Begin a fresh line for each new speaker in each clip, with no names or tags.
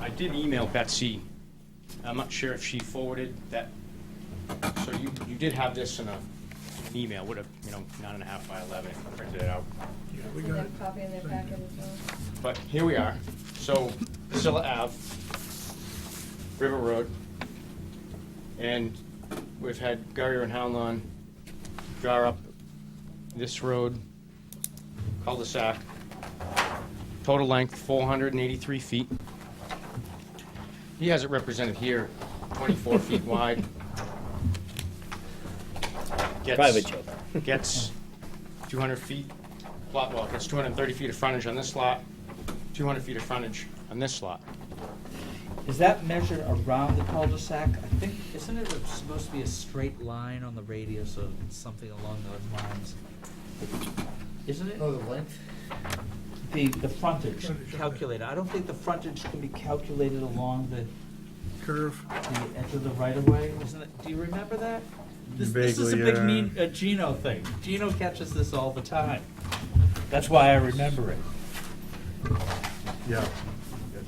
I did email Betsy. I'm not sure if she forwarded that. So you, you did have this in a, an email, would have, you know, nine and a half by eleven, if I printed it out.
Yeah, we
Is
got
that
it.
a copy in their packet as well?
But here we are. So Priscilla Ave, River Road. And we've had Gary and Howlon draw up this road, cul-de-sac. Total length, four hundred and eighty-three feet. He has it represented here, twenty-four feet wide. Gets-
Private joke.
gets 200 feet, plot well, gets 230 feet of frontage on this lot, 200 feet of frontage on this lot.
Is that measured around the cul-de-sac? I think, isn't it supposed to be a straight line on the radius or something along those lines? Isn't it?
No, Oh, the length?
The, the frontage
Frontage, okay.
calculated. I don't think the frontage can be calculated along the,
Curve.
the edge of the right-of-way, isn't it? Do you remember that? This, this is a
Vaguely,
big
yeah.
mean, uh, Gino thing. Gino catches this all the time. That's why I remember it.
Yeah, yeah,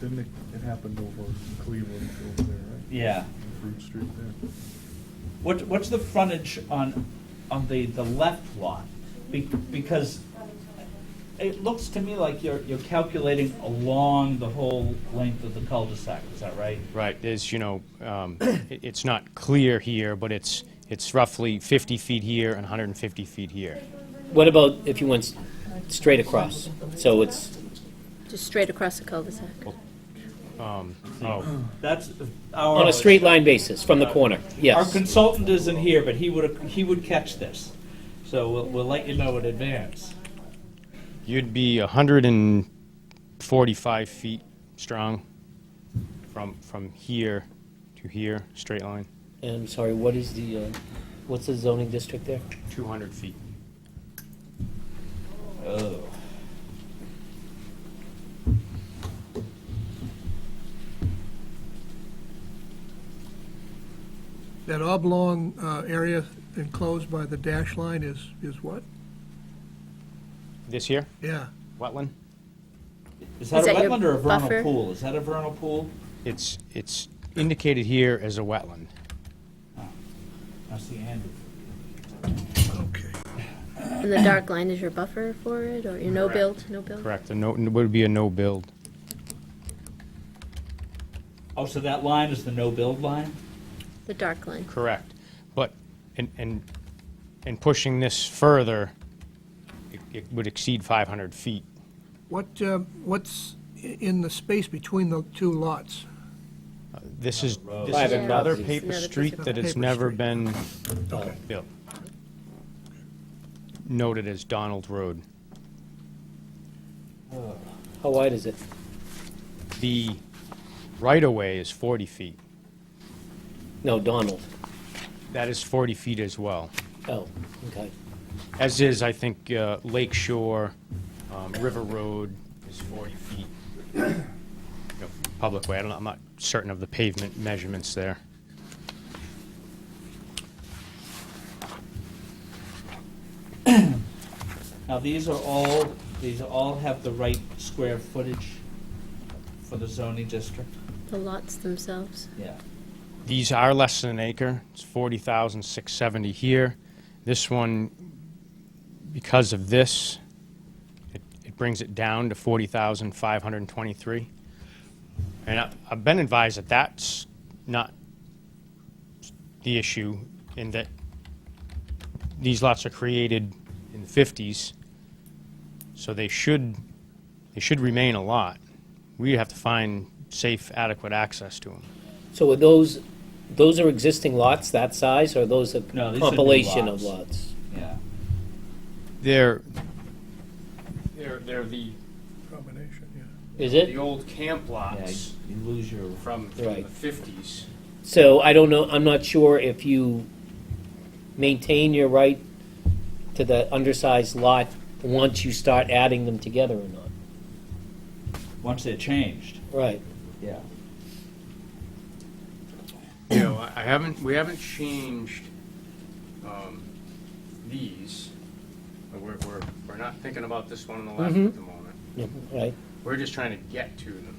didn't it, it happened over in Cleveland over there, right?
Yeah.
On Fruit Street there.
What, what's the frontage on, on the, the left lot? Be- Because it looks to me like you're, you're calculating along the whole length of the cul-de-sac, is that right?
Right, there's, you know, um, it- it's not clear here, but it's, it's roughly 50 feet here and 150 feet here.
What about if you went s- straight across? So it's,
Just straight across the cul-de-sac.
Oh,
That's our.
on a straight line basis, from the corner,
Our
yes.
consultant isn't here, but he would, he would catch this. So we'll, we'll let you know in advance.
you'd be 145 feet strong from, from here to here, straight line,
And I'm sorry, what is the, uh, what's the zoning district there?
200 feet.
Oh.
That oblong uh, area enclosed by the dash line is, is what?
This here,
Yeah,
wetland?
Is that
Is
a
that your
wetland or a vernal
buffer?
pool? Is that a vernal pool?
It's, it's indicated here as a wetland.
I see Andrew.
okay.
And the dark line is your buffer for it, or your
Correct.
no-build, no-build?
Correct, a no, would be a no build.
Oh, so that line is the no-build line?
The dark line.
Correct. But, and, and, and pushing this further, it, it would exceed five hundred feet.
What, um, what's i- in the space between the two lots?
This is, this is
Private
another
properties.
paper
Another piece
street
of
that has
paper
never
street.
been
Okay.
built. Noted as Donald Road.
How wide is it?
The right-of-way is forty feet.
No, Donald.
That is forty feet as well.
Oh, okay.
As is, I think, uh, Lake Shore, um, River Road is 40 feet. You know, Public way, I don't, know, I'm not certain of the pavement measurements there.
Now, these are all, these all have the right square footage for the zoning district?
The lots themselves.
Yeah.
These are less than an acre, it's 40,670 here. This one, because of this, it- it brings it down to 40,523. And I- I've been advised that that's not the issue, in that these lots are created in the 50s, so they should, they should remain a lot. We have to find safe, adequate access to them.
So are those, those are existing lots that size, or those a
No, these are new
compilation of
lots.
lots?
Yeah.
They're, they're, they're the,
Combination, yeah.
Is
the
it?
old camp
Yeah,
lots
you lose your,
from, from the
Right.
fifties.
So I don't know, I'm not sure if you maintain your right to the undersized lot once you start adding them together or not.
once they're changed.
Right.
Yeah.
You know, I I haven't, we haven't changed, um, these. But We're, we're, we're not thinking about this one on the left at the moment.
Yeah, Right.
We're just trying to get to them.